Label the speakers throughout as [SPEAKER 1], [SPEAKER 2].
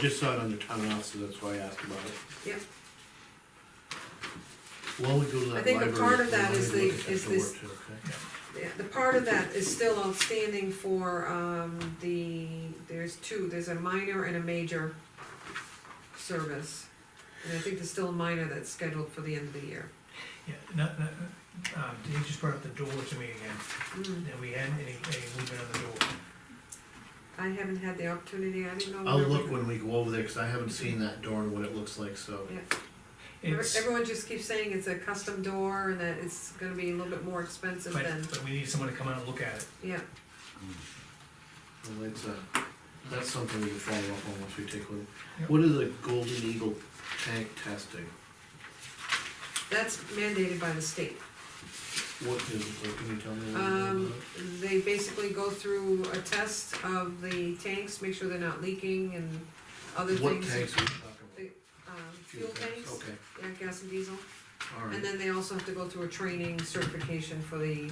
[SPEAKER 1] just saw it under town officer, that's why I asked about it.
[SPEAKER 2] Yep.
[SPEAKER 1] While we go to
[SPEAKER 2] I
[SPEAKER 1] that
[SPEAKER 2] think a
[SPEAKER 1] library,
[SPEAKER 2] part of
[SPEAKER 1] we
[SPEAKER 2] that
[SPEAKER 1] wanted
[SPEAKER 2] is
[SPEAKER 1] to
[SPEAKER 2] the-
[SPEAKER 1] look at
[SPEAKER 2] is
[SPEAKER 1] door
[SPEAKER 2] this-
[SPEAKER 1] too, okay?
[SPEAKER 2] Yeah, the part of that is still outstanding for, um, the, there's two, there's a minor and a major service. And I think there's still a minor that's scheduled for the end of the year.
[SPEAKER 3] Yeah, no, no, um, he just brought up the door to me again,
[SPEAKER 2] Mm,
[SPEAKER 3] and we had any, any movement on the door.
[SPEAKER 2] I haven't had the opportunity, I didn't know.
[SPEAKER 1] I'll
[SPEAKER 2] whether we-
[SPEAKER 1] look when we go over there, cause I haven't seen that door and what it looks like, so.
[SPEAKER 2] Yeah.
[SPEAKER 3] It's,
[SPEAKER 2] Everyone just keeps saying it's a custom door and that it's gonna be a little bit more expensive
[SPEAKER 3] but,
[SPEAKER 2] than,
[SPEAKER 3] but we need someone to come out and look at it.
[SPEAKER 2] yeah,
[SPEAKER 1] Well, that's, uh, that's something we can follow up on once we take a look.
[SPEAKER 3] Yep.
[SPEAKER 1] What is a golden eagle tank testing?
[SPEAKER 2] that's mandated by the state.
[SPEAKER 1] What is, what can you tell me? a little bit
[SPEAKER 2] Um,
[SPEAKER 1] about it?
[SPEAKER 2] they basically go through a test of the tanks, make sure they're not leaking and other
[SPEAKER 1] What
[SPEAKER 2] things.
[SPEAKER 1] tanks are we talking
[SPEAKER 2] Um, fuel
[SPEAKER 1] about?
[SPEAKER 2] tanks,
[SPEAKER 1] Okay,
[SPEAKER 2] yeah, gas and diesel, and
[SPEAKER 1] alright,
[SPEAKER 2] then they also have to go through a training certification for the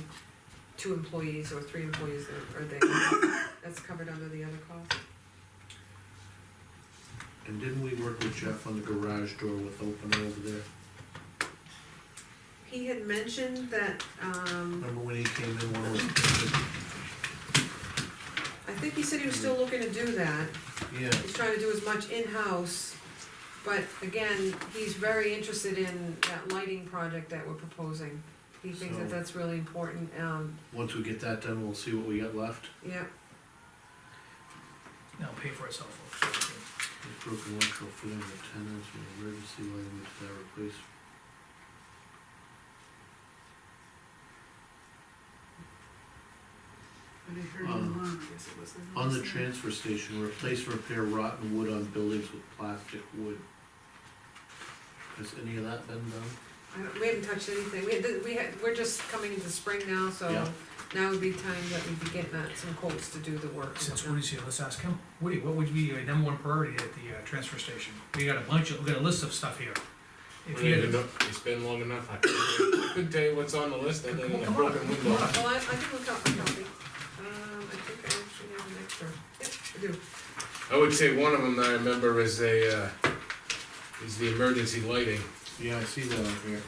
[SPEAKER 2] two employees or three employees that are there. That's covered under the other cost.
[SPEAKER 1] and didn't we work with Jeff on the garage door with opener over there?
[SPEAKER 2] He had mentioned that, um,
[SPEAKER 1] Remember when he came in, one was,
[SPEAKER 2] I think he said he was still looking to do that,
[SPEAKER 1] yeah,
[SPEAKER 2] he's trying to do as much in-house. But again, he's very interested in that lighting project that we're proposing. He thinks that
[SPEAKER 1] So-
[SPEAKER 2] that's really important, um,
[SPEAKER 1] once we get that done, we'll see what we got left.
[SPEAKER 2] yeah,
[SPEAKER 3] Now pay for itself, folks.
[SPEAKER 1] It's Broken electrical fitting with tenants, and emergency lighting to that replace.
[SPEAKER 4] But I heard
[SPEAKER 1] Um,
[SPEAKER 4] him wrong, I guess it was.
[SPEAKER 1] On the transfer station, replace, repair rotten wood on buildings with plastic wood. Has any of that been done?
[SPEAKER 2] I don't, we haven't touched anything, we, had- we had, we're just coming into spring now, so
[SPEAKER 1] Yeah.
[SPEAKER 2] now would be time that we'd be getting at some quotes to do the work.
[SPEAKER 3] Since Woody's here, let's ask him. Woody, what would be your number one priority at the, uh, transfer station? We got a bunch of, we got a list of stuff here. If you had,
[SPEAKER 5] Well, It's been long enough, I couldn't- I couldn't tell you what's on the list, other than a
[SPEAKER 3] Come on,
[SPEAKER 5] broken
[SPEAKER 3] come
[SPEAKER 5] window.
[SPEAKER 3] on.
[SPEAKER 2] Well, I, I think we'll copy, copy, um, I think I actually have an extra, yep, I do.
[SPEAKER 5] I would say one of them that I remember is a, uh, is the emergency lighting.
[SPEAKER 1] Yeah, I see that up here.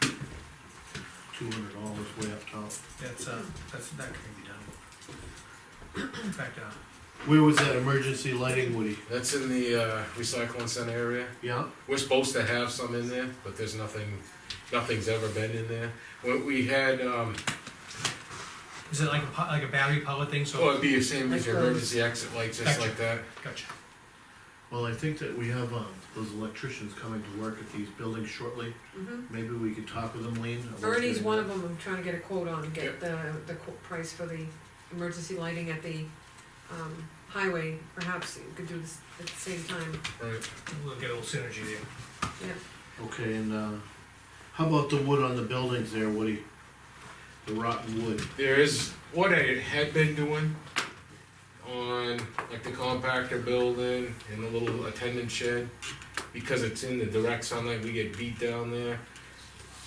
[SPEAKER 1] Two hundred dollars way up top.
[SPEAKER 3] that's, uh, that's, that can be done. In fact, uh,
[SPEAKER 1] Where was that emergency lighting, Woody?
[SPEAKER 5] That's in the uh, recycling center area.
[SPEAKER 1] Yeah,
[SPEAKER 5] We're supposed to have some in there, but there's nothing, nothing's ever been in there. When we had, um,
[SPEAKER 3] is it like a, po- like a battery powered thing,
[SPEAKER 5] oh,
[SPEAKER 3] so,
[SPEAKER 5] it'd be the same as your
[SPEAKER 2] Like those.
[SPEAKER 5] emergency exit lights, just like that.
[SPEAKER 3] gotcha.
[SPEAKER 1] well, I think that we have, um, those electricians coming to work at these buildings shortly.
[SPEAKER 2] Mm-hmm,
[SPEAKER 1] Maybe we could talk with them, Lean. about
[SPEAKER 2] Ernie's
[SPEAKER 1] getting
[SPEAKER 2] one of
[SPEAKER 1] that.
[SPEAKER 2] them, I'm trying to get a quote on,
[SPEAKER 5] Yep.
[SPEAKER 2] get the, the quote price for the emergency lighting at the, um, highway, perhaps you could do this at the same time,
[SPEAKER 5] Right.
[SPEAKER 3] We'll get a little synergy there.
[SPEAKER 2] yeah.
[SPEAKER 1] Okay, and, uh, how about the wood on the buildings there, Woody? The rotten wood.
[SPEAKER 5] There is, what I had been doing on like the compactor building and the little attendant shed, because it's in the direct sunlight, we get beat down there.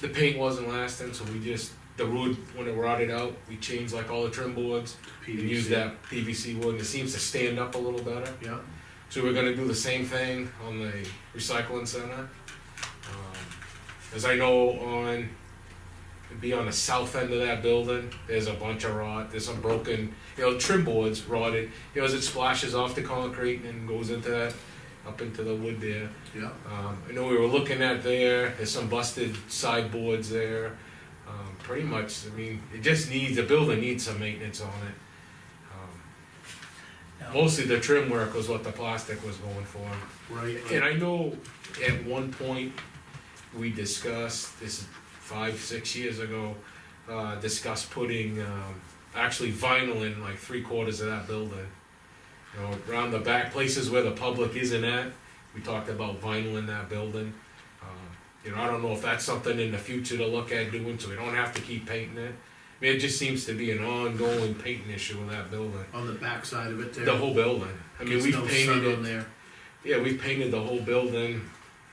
[SPEAKER 5] The paint wasn't lasting, so we just, the wood, when it rotted out, we changed like all the trim boards. We
[SPEAKER 1] PVC.
[SPEAKER 5] used that PVC wood, and it seems to stand up a little better.
[SPEAKER 1] Yeah,
[SPEAKER 5] So we're gonna do the same thing on the recycling center. Um, As I know on, it'd be on the south end of that building, there's a bunch of rot, there's some broken, you know, trim boards rotted. You know, as it splashes off the concrete and goes into that, up into the wood there.
[SPEAKER 1] yeah.
[SPEAKER 5] Um, I know we were looking at there, there's some busted sideboards there. Um, pretty much, I mean, it just needs, the building needs some maintenance on it. Um,
[SPEAKER 3] Now-
[SPEAKER 5] Mostly the trim work was what the plastic was going for.
[SPEAKER 1] Right,
[SPEAKER 5] And I know at one point, we discussed, this is five, six years ago, uh, discussed putting, um, actually vinyl in like three quarters of that building. You know, around the back, places where the public isn't at, we talked about vinyl in that building. Um, You know, I don't know if that's something in the future to look at doing, so we don't have to keep painting it. I mean, it just seems to be an ongoing painting issue in that building,
[SPEAKER 1] on the backside of it there.
[SPEAKER 5] the whole building. I mean,
[SPEAKER 1] Gets
[SPEAKER 5] we've
[SPEAKER 1] no
[SPEAKER 5] painted
[SPEAKER 1] sun
[SPEAKER 5] it.
[SPEAKER 1] on there.
[SPEAKER 5] Yeah, we painted the whole building.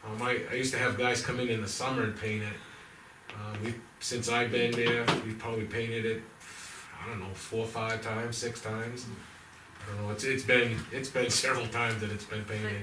[SPEAKER 5] Um, I, I used to have guys come in in the summer and paint it. Uh, we since I've been there, we've probably painted it. I don't know, four, five times, six times. I don't know, it's, it's been, it's been several times that it's been painted.